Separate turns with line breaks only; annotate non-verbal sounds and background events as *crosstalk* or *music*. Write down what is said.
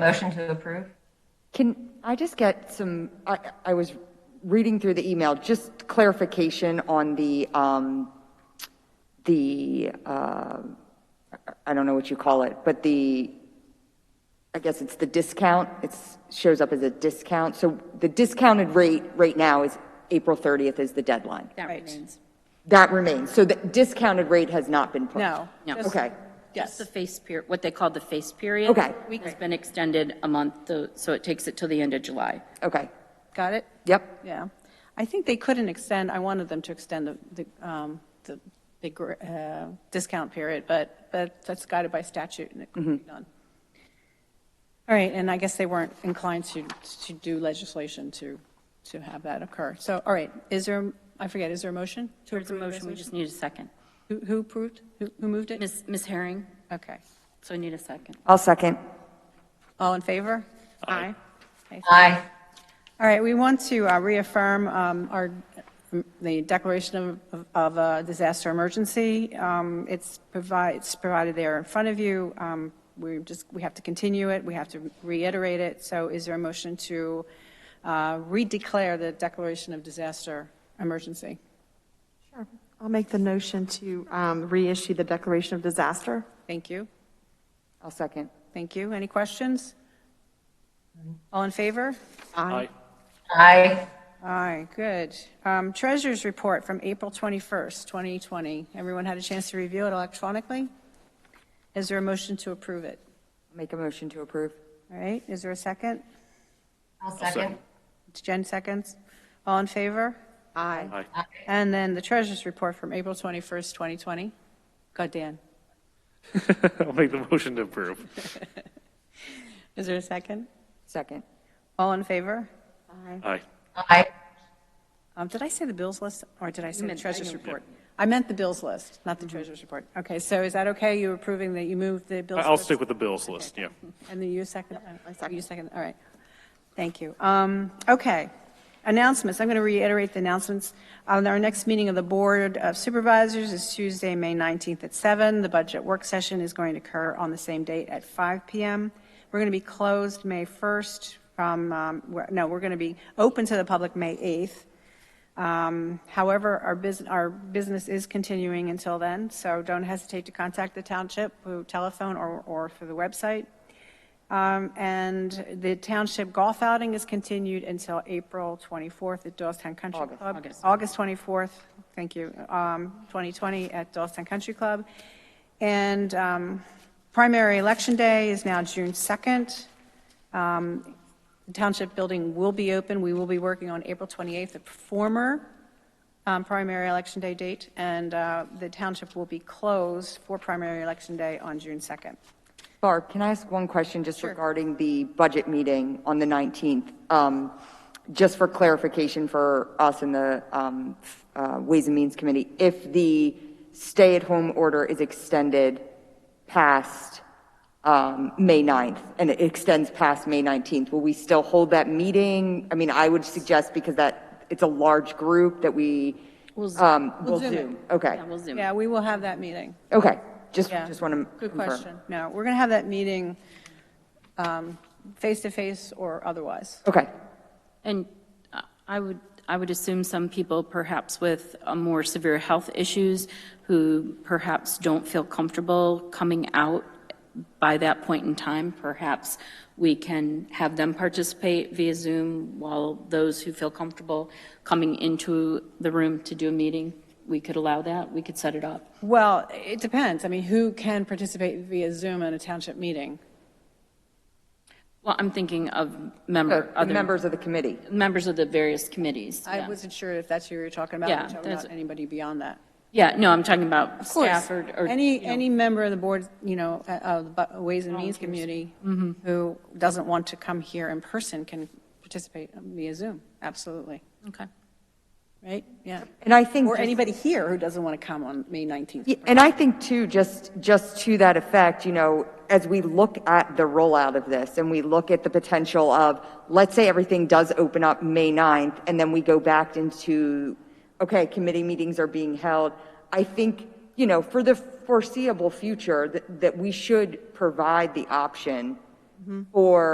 Motion to approve?
Can I just get some, I, I was reading through the email, just clarification on the, um, the, uh, I don't know what you call it, but the, I guess it's the discount, it shows up as a discount. So the discounted rate right now is April 30th is the deadline.
That remains.
That remains. So the discounted rate has not been pushed?
No.
No.
Just-
Okay,
Just
Yes.
the face period, what they call the face period.
Okay.
Has been extended a month, though, so it takes it till the end of July.
okay,
Got it?
yep,
Yeah. I think they couldn't extend, I wanted them to extend the, the, um, the big, gr- uh, discount period, but, but that's guided by statute and it couldn't be done. All right, and I guess they weren't inclined to, to do legislation to, to have that occur. So, all right, is there, I forget, is there a motion? to
Towards the
approve the
motion, we
resolution?
just need a second.
Who, who approved? Who, who moved it?
Ms. Ms. Herring,
Okay.
so I need a second.
I'll second.
All in favor? Aye. Okay,
Aye.
All right, we want to uh, reaffirm um, our, the declaration of- of, of a disaster emergency. Um, It's provide, it's provided there in front of you. Um, We're just, we have to continue it, we have to reiterate it. So is there a motion to uh, redeclare the declaration of disaster emergency?
Sure. I'll make the motion to um, reissue the declaration of disaster.
Thank you,
I'll second.
thank you. Any questions? All in favor?
Aye.
Aye.
Aye, good. Um, Treasurers' report from April 21st, 2020. Everyone had a chance to review it electronically? Is there a motion to approve it?
Make a motion to approve.
All right, is there a second?
I'll second.
It's Jen seconds. All in favor?
Aye.
And then the Treasurers' report from April 21st, 2020. Go, Dan.
*laughs* I'll make the motion to approve.
Is there a second?
Second.
All in favor?
Aye.
Aye.
Um, Did I say the bills list, or did I say the
meant- I
Treasurers'
know.
report? Mm-hmm. I meant the bills list, not the Treasurers' report. Okay, so is that okay? You approving that you moved the bills
I-
list?
I'll stick with the bills list, yeah.
And then you second? I
second.
You second, all right. Thank you. Um, Okay. Announcements, I'm going to reiterate the announcements. Um, Our next meeting of the Board of Supervisors is Tuesday, May 19th at 7. The budget work session is going to occur on the same date at 5 PM. We're going to be closed May 1st from, um, we're- no, we're going to be open to the public May 8th. Um, However, our business, our business is continuing until then, so don't hesitate to contact the township, through telephone or, or through the website. Um, And the township golf outing is continued until April 24th at Doylestown Country Club. August 24th, thank you, um, 2020 at Doylestown Country Club. And um, primary election day is now June 2nd. Um, The Township building will be open. We will be working on April 28th, the former um, primary election day date, and uh, the township will be closed for primary election day on June 2nd.
Barb, can I ask one question just regarding the budget meeting on the 19th? Um, Just for clarification for us in the um, uh, Ways and Means Committee, if the stay-at-home order is extended past um, May 9th, and it extends past May 19th, will we still hold that meeting? I mean, I would suggest, because that, it's a large group, that we um, will
Zoom it.
Zoom. Okay,
Yeah, we'll zoom.
Yeah, we will have that meeting.
okay, just,
Yeah.
just want to
Good question. No, we're going to have that meeting um, face-to-face or otherwise.
Okay.
And uh, I would, I would assume some people perhaps with uh, more severe health issues who perhaps don't feel comfortable coming out by that point in time, perhaps we can have them participate via Zoom while those who feel comfortable coming into the room to do a meeting, we could allow that, we could set it up.
Well, it depends. I mean, who can participate via Zoom in a township meeting?
Well, I'm thinking of member,
The
other.
members of the committee.
Members of the various committees.
I
yeah.
wasn't sure if that's who you were talking about.
Yeah,
I'm talking
that's-
about anybody beyond that.
Yeah, no, I'm talking about staff or. or,
Any,
you know.
any member of the board, you know, uh, of the bu- Ways and Means community who doesn't want to come here in person can participate via Zoom, absolutely.
Okay.
Right? Yeah.
And I think
Or
just-
anybody here who doesn't want to come on May 19th.
Yeah, And I think too, just, just to that effect, you know, as we look at the rollout of this and we look at the potential of, let's say everything does open up May 9th and then we go back into, okay, committee meetings are being held. I think, you know, for the foreseeable future, that, that we should provide the option for